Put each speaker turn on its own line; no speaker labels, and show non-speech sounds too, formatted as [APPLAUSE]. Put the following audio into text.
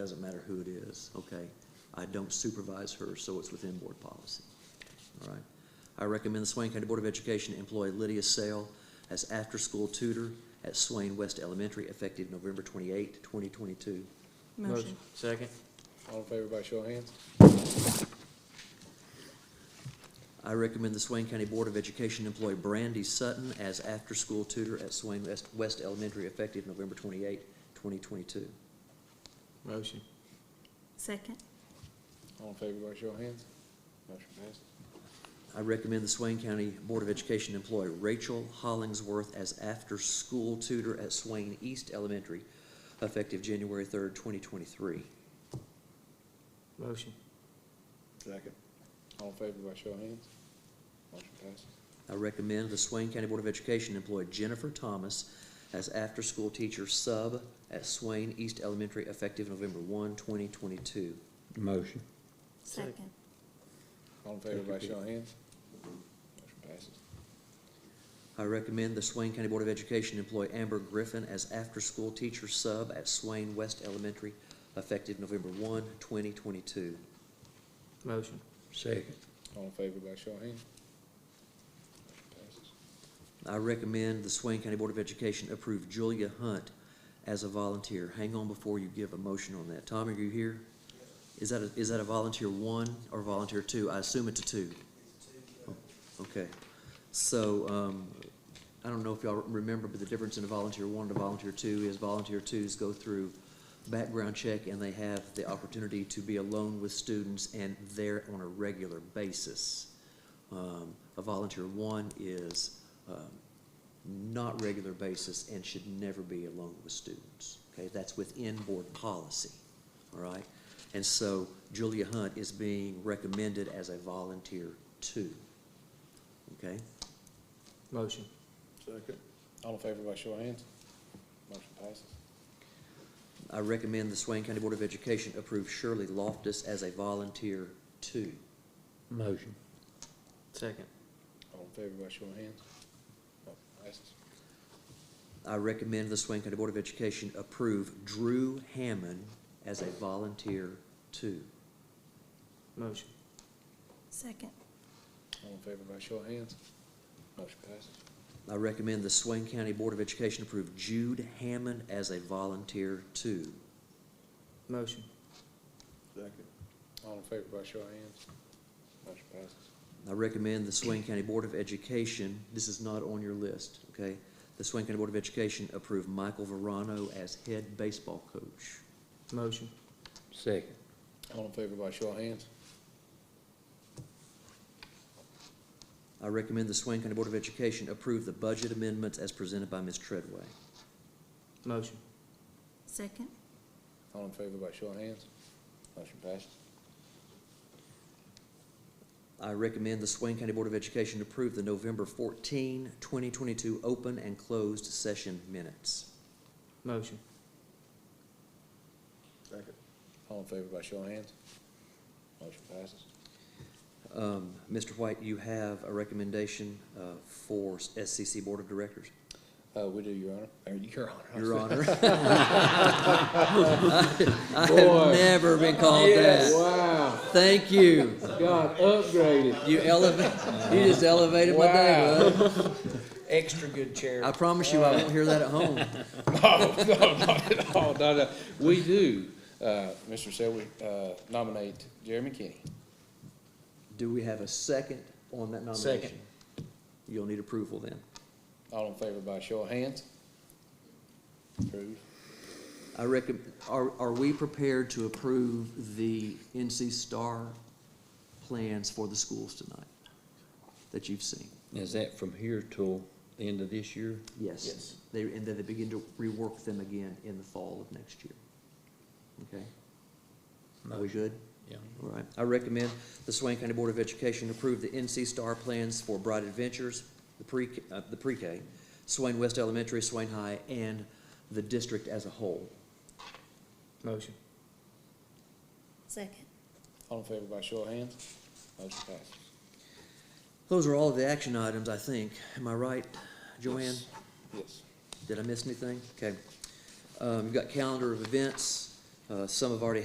Doesn't matter who it is, okay? I don't supervise her, so it's within board policy. All right? I recommend the Swain County Board of Education employ Lydia Sale as after-school tutor at Swain West Elementary effective November 28, 2022.
Motion.
Second?
All in favor, by show of hands?
I recommend the Swain County Board of Education employ Brandy Sutton as after-school tutor at Swain West, West Elementary effective November 28, 2022.
Motion.
Second.
All in favor, by show of hands? Motion passes.
I recommend the Swain County Board of Education employ Rachel Hollingsworth as after-school tutor at Swain East Elementary, effective January third, twenty twenty-three.
Motion.
Second. All in favor, by show of hands? Motion passes.
I recommend the Swain County Board of Education employ Jennifer Thomas as after-school teacher sub at Swain East Elementary, effective November 1, 2022.
Motion.
Second.
All in favor, by show of hands? Motion passes.
I recommend the Swain County Board of Education employ Amber Griffin as after-school teacher sub at Swain West Elementary, effective November 1, 2022.
Motion.
Second.
All in favor, by show of hands? Motion passes.
I recommend the Swain County Board of Education approve Julia Hunt as a volunteer. Hang on before you give a motion on that. Tommy, are you here? Is that, a- is that a volunteer one or volunteer two? I assume it's a two. Oh, Okay. So, um, I don't know if y'all remember, but the difference in a volunteer one and a volunteer two is volunteer twos go through background check and they have the opportunity to be alone with students and there on a regular basis. Um, A volunteer one is um, not regular basis and should never be alone with students. Okay, that's within board policy, all right? And so Julia Hunt is being recommended as a volunteer two. Okay,
Motion.
Second. All in favor, by show of hands? Motion passes.
I recommend the Swain County Board of Education approve Shirley Loftus as a volunteer two.
Motion.
Second.
All in favor, by show of hands? Motion passes.
I recommend the Swain County Board of Education approve Drew Hammond as a volunteer two.
Motion.
Second.
All in favor, by show of hands? Motion passes.
I recommend the Swain County Board of Education approve Jude Hammond as a volunteer two.
Motion.
Second. All in favor, by show of hands? Motion passes.
I recommend the Swain County Board of Education, this is not on your list, okay? The Swain County Board of Education approve Michael Verano as head baseball coach.
Motion.
Second.
All in favor, by show of hands?
I recommend the Swain County Board of Education approve the budget amendments as presented by Ms. Treadway.
Motion.
Second.
All in favor, by show of hands? Motion passes.
I recommend the Swain County Board of Education approve the November 14, 2022, open and closed session minutes.
Motion.
Second. All in favor, by show of hands? Motion passes.
Um, Mr. White, you have a recommendation, uh, for SCC Board of Directors?
Uh, we do, Your Honor. Uh, Your Honor.
Your Honor.
[LAUGHS]
I have
Boy.
never been called that.
Wow,
Thank you.
God [LAUGHS] upgraded.
You elevate, you just elevated my day, bud.
Extra good chair.
I promise you, I won't hear
[LAUGHS]
that at home.
Oh, no, no, we do, uh, Mr. Selby, uh, nominate Jeremy Kenny.
Do we have a second on that nomination?
Second.
You'll need approval then.
All in favor, by show of hands? Approved.
I reckon, are, are we prepared to approve the NC Star plans for the schools tonight that you've seen?
Is that from here till the end of this year?
Yes.
Yes.
They, and then they begin to rework them again in the fall of next year. Okay? Are we good?
Yeah.
All right. I recommend the Swain County Board of Education approve the NC Star plans for Bright Adventures, the pre, uh, the pre-K, Swain West Elementary, Swain High, and the district as a whole.
Motion.
Second.
All in favor, by show of hands? Motion passes.
Those are all of the action items, I think. Am I right, Joanne?
Yes.
Did I miss anything? Okay. Um, you've got calendar of events. Uh, Some have already